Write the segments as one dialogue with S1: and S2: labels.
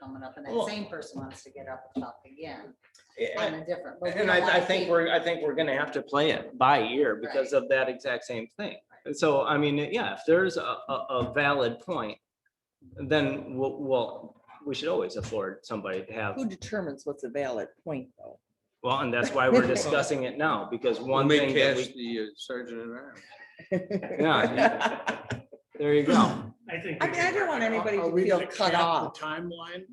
S1: coming up, and that
S2: Well-
S1: same person wants to get up and talk again on
S2: And
S1: a different. but we
S2: and
S1: don't
S2: I, I
S1: wanna
S2: think
S1: keep-
S2: we're, I think we're gonna have to play it by ear because of that exact same thing. And so, I mean, yeah, if there's a, a, a valid point, then we'll, we'll, we should always afford somebody to have,
S3: Who determines what's a valid point, though?
S2: well, and that's why we're discussing it now, because
S4: We'll
S2: one
S4: make
S2: thing that
S4: Cash
S2: we,
S4: the uh, sergeant at arms.
S2: yeah. There you go.
S5: I think.
S3: I mean, I don't want anybody
S6: Are
S3: to
S6: we
S3: feel
S6: gonna
S3: cut
S6: cap
S3: off.
S6: The timeline,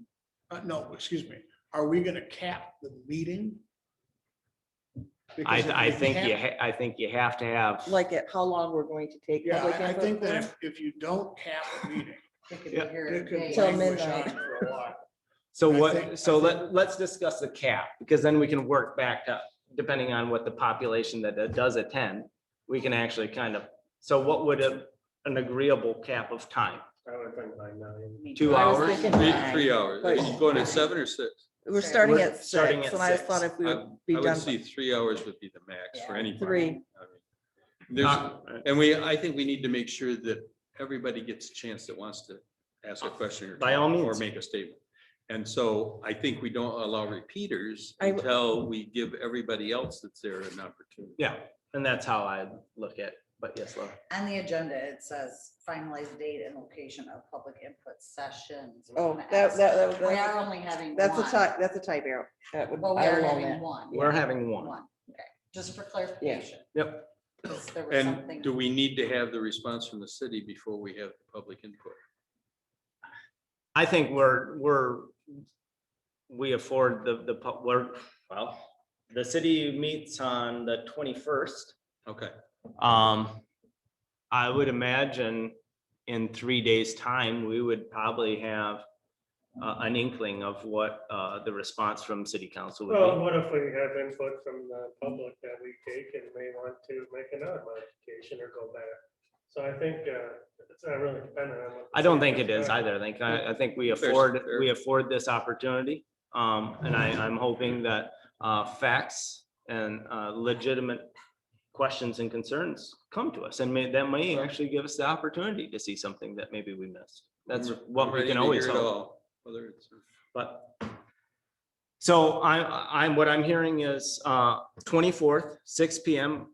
S6: uh, no, excuse me, are we gonna cap the meeting?
S2: I,
S6: Because if
S2: I
S6: we
S2: think you,
S6: cap-
S2: ha- I think you have to have,
S3: Like at how long we're going to take
S6: Yeah,
S3: public
S6: I- I think
S3: input.
S6: that if, if you don't cap the meeting,
S1: They could be
S2: Yeah.
S1: here
S6: it
S1: today.
S6: could
S3: Till
S6: languish
S3: midnight.
S6: on for a while.
S2: so
S6: I
S2: what,
S6: think-
S2: so
S6: I think-
S2: let, let's discuss the cap, because then we can work back up, depending on what the population that that does attend, we can actually kind of, so what would a, an agreeable cap of time? Two
S1: I was
S2: hours?
S1: thinking
S4: Three,
S1: nine.
S4: three hours. Are you going at seven or six?
S3: We're starting
S2: We're
S3: at
S2: starting
S3: six,
S2: at
S3: and I just
S2: six.
S3: thought if we would be
S4: I would
S3: done.
S4: see three hours would be the max for
S1: Yeah.
S4: any.
S3: Three.
S4: There's,
S2: Not- uh,
S4: and we, I think we need to make sure that everybody gets a chance that wants to ask a question. or
S2: By all
S4: comment
S2: means.
S4: Or make a statement. And so I think we don't allow repeaters
S3: I w-
S4: until we give everybody else that's there an opportunity.
S2: Yeah, and that's how I look at, but yes, Laura.
S1: On the agenda, it says finalize date and location of public input sessions. We're
S3: Oh,
S1: gonna
S3: that,
S1: ask-
S3: that,
S1: We are
S3: that,
S1: only having
S3: that's a
S1: one.
S3: tie, that's a tie barrel. That would,
S1: Well, we
S3: I
S1: are
S3: will own
S1: having
S3: that.
S1: one.
S2: we're having one.
S1: One, okay, just for clarification.
S2: Yep.
S1: 'cause there was something-
S4: And do we need to have the response from the city before we have the public input?
S2: I think we're, we're, we afford the, the, pub- we're, well, the city meets on the twenty-first.
S4: Okay,
S2: Um, I would imagine in three days' time, we would probably have uh, an inkling of what, uh, the response from city council
S5: Well,
S2: would
S5: what if we have input from the public that we take and may want to make another modification or go back? So I think uh, it's not really dependent on. what the
S2: be. I don't
S5: city
S2: think it is
S5: does.
S2: either. I think, I, I think we
S4: Fair,
S2: afford,
S4: fair.
S2: we afford this opportunity. Um, and I, I'm hoping that, uh, facts and, uh, legitimate questions and concerns come to us and may, that may actually give us the opportunity to see something that maybe we missed. That's
S4: I'm- I'm
S2: what we
S4: ready
S2: can
S4: to hear
S2: always
S4: it
S2: hope.
S4: all, Whether it's.
S2: But. So I, I'm, what I'm hearing is, uh, twenty-fourth, six P M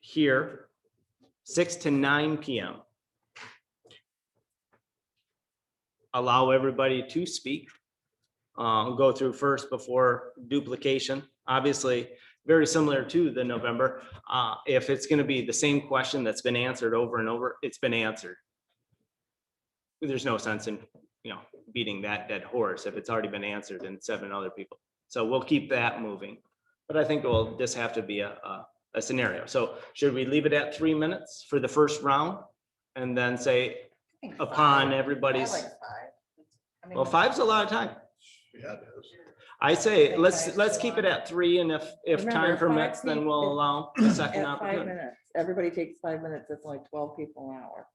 S2: here, six to nine P M. Allow everybody to speak, uh, go through first before duplication, obviously, very similar to the November. Uh, if it's gonna be the same question that's been answered over and over, it's been answered. There's no sense in you know, beating that dead horse if it's already been answered in seven other people. So we'll keep that moving. But I think it will just have to be a, a, a scenario. So should we leave it at three minutes for the first round? And then say
S1: I think five.
S2: upon
S1: I like
S2: everybody's,
S1: five. I mean,
S2: well, five's a lot of time.
S6: Yeah, it is.
S2: I
S1: I
S2: say,
S1: think
S2: let's,
S1: five's
S2: let's
S1: a
S2: keep
S1: lot.
S2: it at three and if, if
S3: Remember,
S2: time
S3: five
S2: permits, then we'll
S3: people-
S2: allow a second
S3: At five
S2: opportunity.
S3: minutes, everybody takes five minutes, that's only twelve people an hour.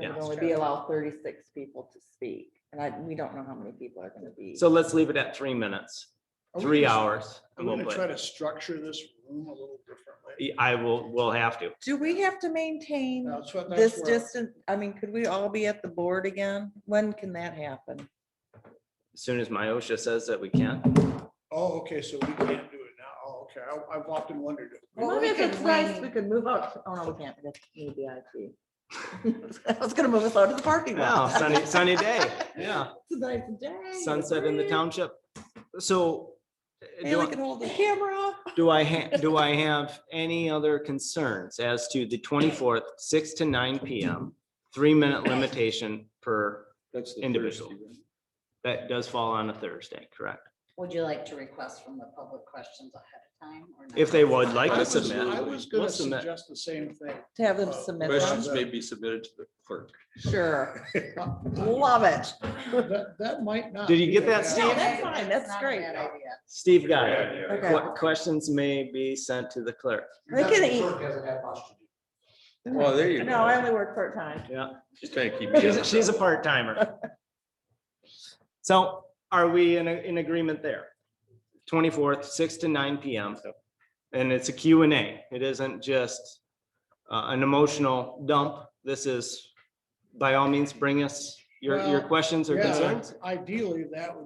S2: Yeah.
S3: And we only be allowed thirty-six people to speak, and I, we don't know how many people are gonna be.
S2: So let's leave it at three minutes,
S6: Are we
S2: three
S6: gonna-
S2: hours.
S6: Are
S2: and
S6: we
S2: we'll
S6: gonna try
S2: play.
S6: to structure this room a little differently?
S2: I will, we'll have to.
S3: Do we have to maintain
S6: That's what- that's
S3: this
S6: where-
S3: distance? I mean, could we all be at the board again? When can that happen?
S2: As soon as Myosha says that we can.
S6: Oh, okay, so we can't do it now. Oh, okay. I- I've often wondered. if we-
S1: Well, Maybe we if could it's nice, wait. we
S3: could move out. Oh, no, we can't. That's new VIP. I was gonna move us out to the parking
S2: Wow,
S3: lot.
S2: sunny, sunny day. Yeah.
S3: It's a nice day.
S2: Sunset in the township. So do
S3: Haley
S2: I-
S3: can hold the camera.
S2: do I, ha- do I have any other concerns as to the twenty-fourth, six to nine PM? Three-minute limitation per,
S4: That's the first
S2: Individual.
S4: event.
S2: that does fall on a Thursday, correct?
S1: Would you like to request from the public questions ahead of time or? not?
S2: If they would like
S6: I
S2: to
S6: was-
S2: submit.
S6: I was gonna
S2: Let's submit.
S6: suggest the same thing.
S3: To have them
S6: Uh,
S3: submit
S4: Questions
S3: them.
S4: may be submitted to the clerk.
S3: Sure. Love it.
S6: That, that might not.
S2: Did you
S6: be
S2: get
S6: a
S2: that,
S6: bad-
S2: Steve?
S1: No,
S3: that's fine,
S1: it's
S3: that's
S1: not a
S3: great.
S1: bad idea.
S2: Steve got it.
S3: Okay.
S2: What questions may be sent to the clerk?
S3: They can eat.
S4: Well, there you go.
S3: No, I only work part-time.
S2: Yeah,
S4: Just trying to keep. you
S2: she's,
S4: on
S2: she's a
S4: track.
S2: part-timer. So are we in, a- in agreement there? Twenty-fourth, six to nine PM. And it's a Q and A. It isn't just uh, an emotional dump. This is by all means, bring us Your, your
S6: Well,
S2: questions or
S6: Yeah,
S2: concerns?
S6: Ideally, that would